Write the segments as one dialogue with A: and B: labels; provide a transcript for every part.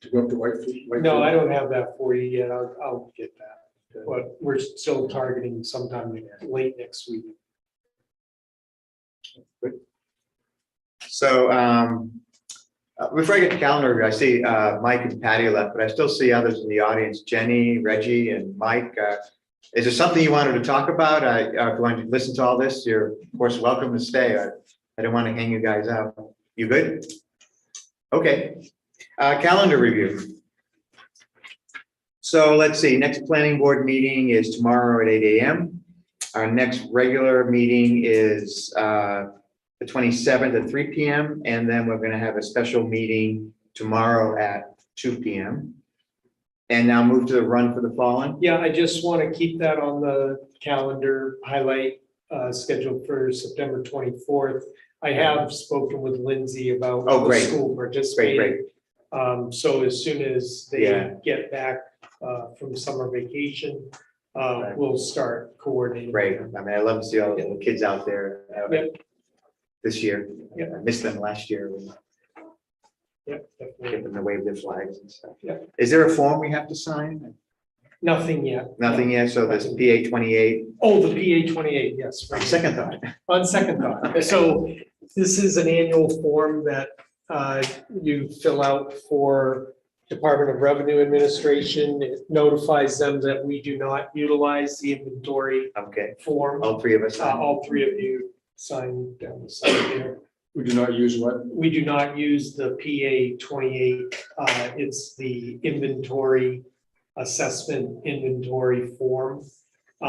A: to go up to Whitefield?
B: No, I don't have that for you yet. I'll, I'll get that. But we're still targeting sometime late next week.
C: So um, uh, before I get to calendar, review, I see uh, Mike and Patty left, but I still see others in the audience, Jenny, Reggie, and Mike. Uh, Is there something you wanted to talk about? I, uh, if you wanted to listen to all this, you're of course welcome to stay. I I don't want to hang you guys out. You good? Okay, Uh, calendar review. So let's see, next planning board meeting is tomorrow at eight AM. Our next regular meeting is uh, the twenty-seventh at three P M, and then we're gonna have a special meeting tomorrow at two P M. And now move to the run for the fallen.
B: Yeah, I just want to keep that on the calendar highlight uh, scheduled for September twenty-fourth. I have spoken with Lindsay about.
C: Oh, great.
B: the School participating. Um, so as soon as
C: Yeah.
B: they get back uh, from summer vacation, uh,
C: Right.
B: we'll start coordinating.
C: Great, I mean, I love to see all the little kids out there. uh,
B: Yep.
C: This year,
B: Yep.
C: I missed them last year, we
B: Yep, definitely.
C: kept them to wave their flags and stuff.
B: Yep.
C: Is there a form we have to sign?
B: Nothing yet.
C: Nothing yet, so this P A twenty-eight,
B: Oh, the PA twenty-eight, yes. right.
C: second thought.
B: On second thought, so this is an annual form that uh, you fill out for Department of Revenue Administration. It notifies them that we do not utilize the inventory
C: Okay,
B: form. Uh,
C: all three of us. sign.
B: All three of you sign down the side there.
A: We do not use what?
B: We do not use the PA twenty-eight. uh, It's the inventory assessment inventory form.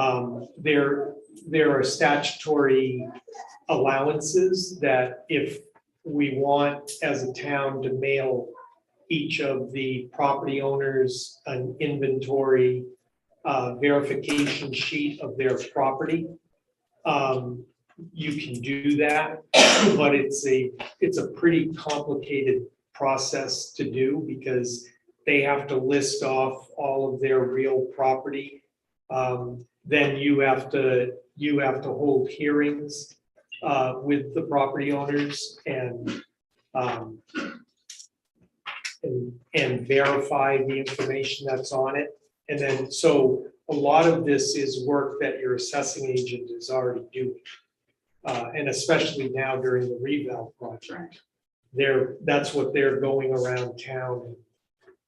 B: Um, There, there are statutory allowances that if we want as a town to mail each of the property owners an inventory uh, verification sheet of their property, um, you can do that, but it's a it's a pretty complicated process to do because they have to list off all of their real property. Um, Then you have to, you have to hold hearings uh, with the property owners and um, and, and verify the information that's on it. And then, so a lot of this is work that your assessing agent is already doing uh, and especially now during the revale project. They're, that's what they're going around town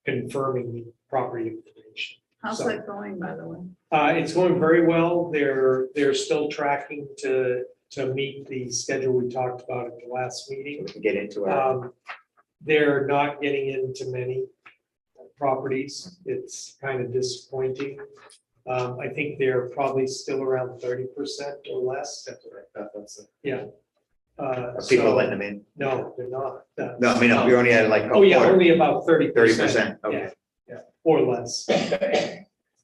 B: and confirming the property information.
D: How's
B: So-
D: that going, by the way?
B: Uh, it's going very well. They're, they're still tracking to, to meet the schedule we talked about at the last meeting.
C: We can Get into it.
B: Um, They're not getting into many properties. It's kind of disappointing. Um, I think they're probably still around thirty percent or less. Uh,
C: Are People
B: so-
C: letting them in.
B: No, they're not. Uh,
C: No, I mean, we only had like. a
B: Oh, yeah,
C: quarter.
B: only about thirty
C: Thirty
B: percent.
C: percent, okay.
B: Or less.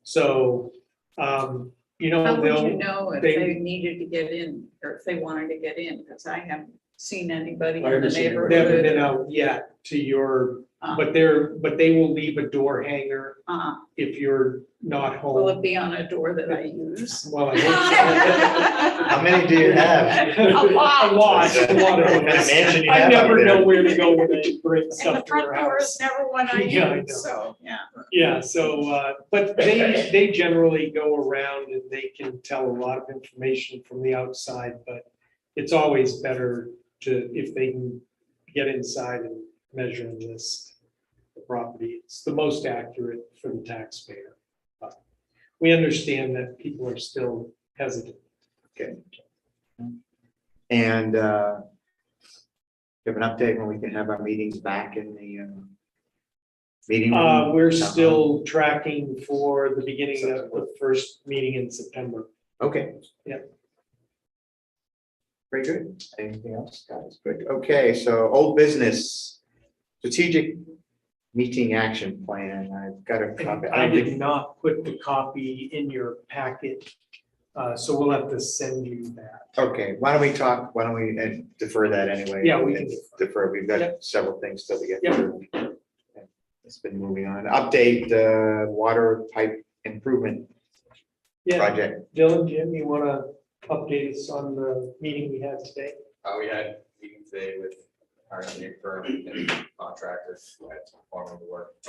B: So, um, you know,
D: How would you
B: they'll,
D: know if
B: they-
D: they needed to get in or if they wanted to get in? Because I haven't seen anybody
A: I
D: in the
A: haven't seen anybody.
B: they haven't been
D: neighborhood.
B: out yet to your,
D: Uh,
B: but they're, but they will leave a door hanger
D: uh,
B: if you're not
D: Will it
B: home.
D: be on a door that I use?
B: Well, I hope
D: How
C: How many do you have?
B: so.
D: A lot.
B: A lot, a lot of
C: What kind of
B: them.
C: mansion you
B: I
C: have out
B: never
C: there?
B: know where to go when they bring
D: And the
B: stuff to
D: front
B: your
D: door
B: house.
D: is never one I
B: Yeah, I
D: use,
B: know.
D: so, yeah.
B: Yeah, so, uh, but they, they generally go around and they can tell a lot of information from the outside, but it's always better to, if they can get inside and measure and list the property. It's the most accurate for the taxpayer. But We understand that people are still hesitant.
C: And uh, give an update when we can have our meetings back in the uh, meeting.
B: Uh,
C: room?
B: we're
C: Town hall?
B: still tracking for the beginning of the first meeting in September.
C: Okay.
B: Yeah.
C: Very good. Anything else, guys? Good. Okay, so old business, strategic meeting action plan. I've got a copy.
B: I did not put the copy in your packet, uh, so we'll have to send you that.
C: Okay, why don't we talk, why don't we uh, defer that anyway?
B: Yeah, we can
C: Defer, we've
B: Yep.
C: got several things still to get
B: Yep.
C: through. It's been moving on. Update, uh, water pipe improvement
B: Yeah,
C: project.
B: Dylan, Jim, you want to update us on the meeting we had today?
E: Uh, we had meeting today with our engineering firm and contractors who had to perform the work.